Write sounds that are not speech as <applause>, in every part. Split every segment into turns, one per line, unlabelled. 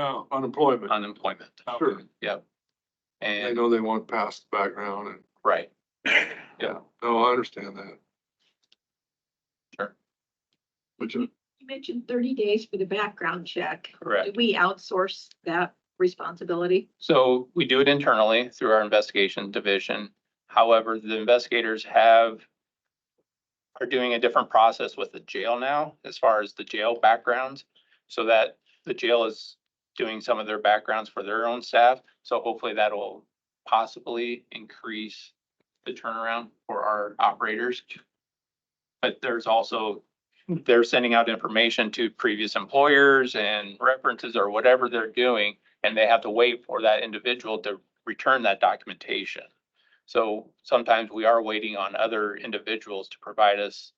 uh, unemployment.
unemployment.
Sure.
Yep.
They
And,
know they want past the background and,
right,
yeah, no, I understand that.
Sure.
Which, is-
You mentioned thirty days for the background check.
correct.
Do we outsource that responsibility?
So we do it internally through our investigation division. However, the investigators have are doing a different process with the jail now as far as the jail backgrounds. So that the jail is doing some of their backgrounds for their own staff. So hopefully that'll possibly increase the turnaround for our operators. But there's also, they're sending out information to previous employers and references or whatever they're doing and they have to wait for that individual to return that documentation. So sometimes we are waiting on other individuals to provide us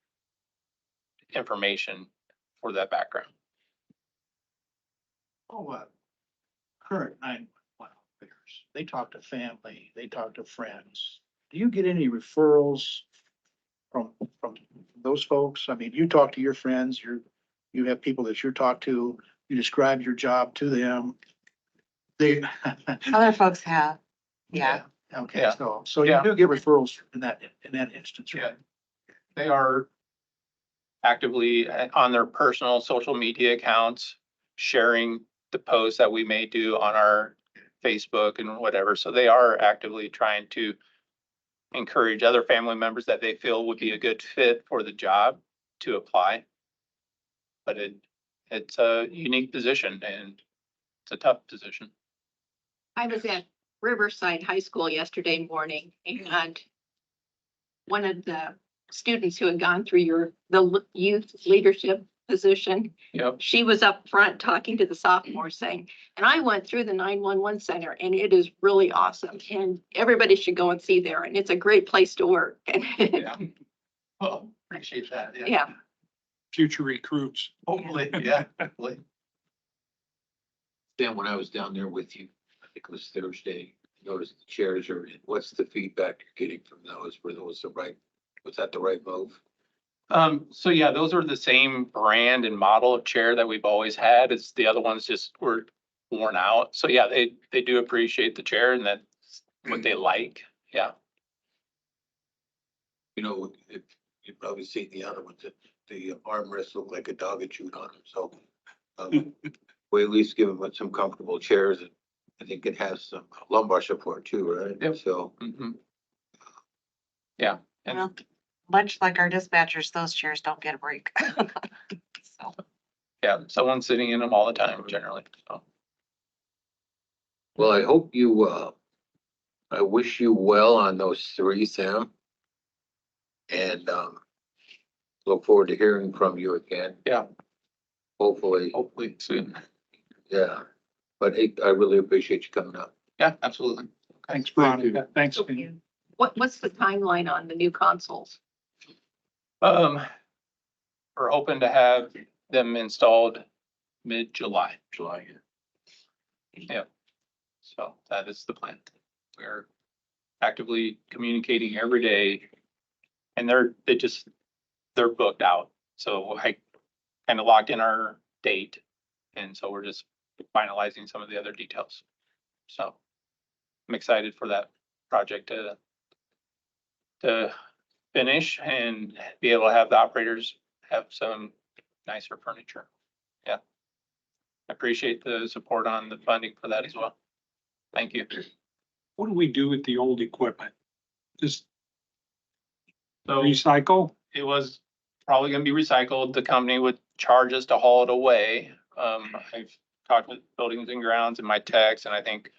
information for that background.
Oh, uh, current nine one one operators, they talk to family, they talk to friends. Do you get any referrals from, from those folks? I mean, you talk to your friends, you're, you have people that you talk to, you describe your job to them. They. <laughs>
Other folks have, yeah.
Okay,
Yeah.
so, so you
Yeah.
do get referrals in that, in that instance, right?
They are actively uh, on their personal social media accounts, sharing the posts that we may do on our Facebook and whatever. So they are actively trying to encourage other family members that they feel would be a good fit for the job to apply. But it, it's a unique position and it's a tough position.
I was at Riverside High School yesterday morning and one of the students who had gone through your, the l- youth leadership position,
Yep.
she was up front talking to the sophomores saying, and I went through the nine-one-one center and it is really awesome and everybody should go and see there and it's a great place to work. <laughs> And
Yeah. Well, appreciate that.
Yeah,
future recruits.
Hopefully, <laughs> yeah, hopefully.
Dan, when I was down there with you, I think it was Thursday, I noticed the chairs are, in. what's the feedback you're getting from those? Were those the right, was that the right move?
Um, so yeah, those are the same brand and model of chair that we've always had. It's the other ones just were worn out. So yeah, they, they do appreciate the chair and that's what they like. Yeah.
You know, if, you've probably seen the other ones, the armrests look like a dog had chewed on them, so. um, We at least give them some comfortable chairs and I think it has some lumbar support too, right?
Yep.
So,
Mhm. Yeah. And
Well, Much like our dispatchers, those chairs don't get a break. <laughs> So,
yeah, someone's sitting in them all the time generally. So
well, I hope you, uh, I wish you well on those three, Sam. And, um, look forward to hearing from you again.
Yeah.
Hopefully.
hopefully soon.
Yeah, but it- I really appreciate you coming up.
Yeah, absolutely.
Thanks,
Thank you.
Veronica. Thanks. Vin.
what, what's the timeline on the new consoles?
Um, we're hoping to have them installed mid-July.
July.
So that is the plan. We're actively communicating every day. And they're, they just, they're booked out. So I kind of locked in our date. And so we're just finalizing some of the other details. So I'm excited for that project to to finish and be able to have the operators have some nicer furniture. Yeah. I Appreciate the support on the funding for that as well. Thank you.
What do we do with the old equipment? Just
So
recycle?
it was probably gonna be recycled. The company would charge us to haul it away. Um, I've talked with buildings and grounds and my techs and I think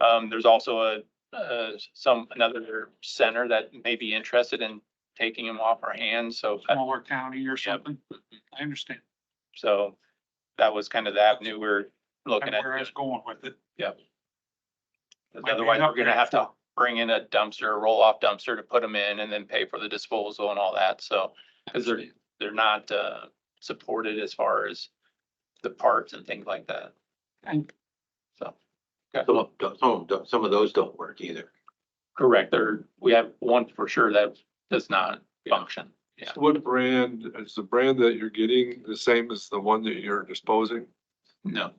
um, there's also a, uh, some, another center that may be interested in taking them off our hands. So, uh,
Smaller county or something? I understand.
so that was kind of the avenue we're looking at.
Where I was going with it.
Because Otherwise, we're gonna have to bring in a dumpster, roll off dumpster to put them in and then pay for the disposal and all that. So, because they're, they're not, uh, supported as far as the parts and things like that.
And
So,
Some of, some of them- some of those don't work either.
correct, there, we have one for sure that does not function. Yeah.
What brand, is the brand that you're getting the same as the one that you're disposing?
No,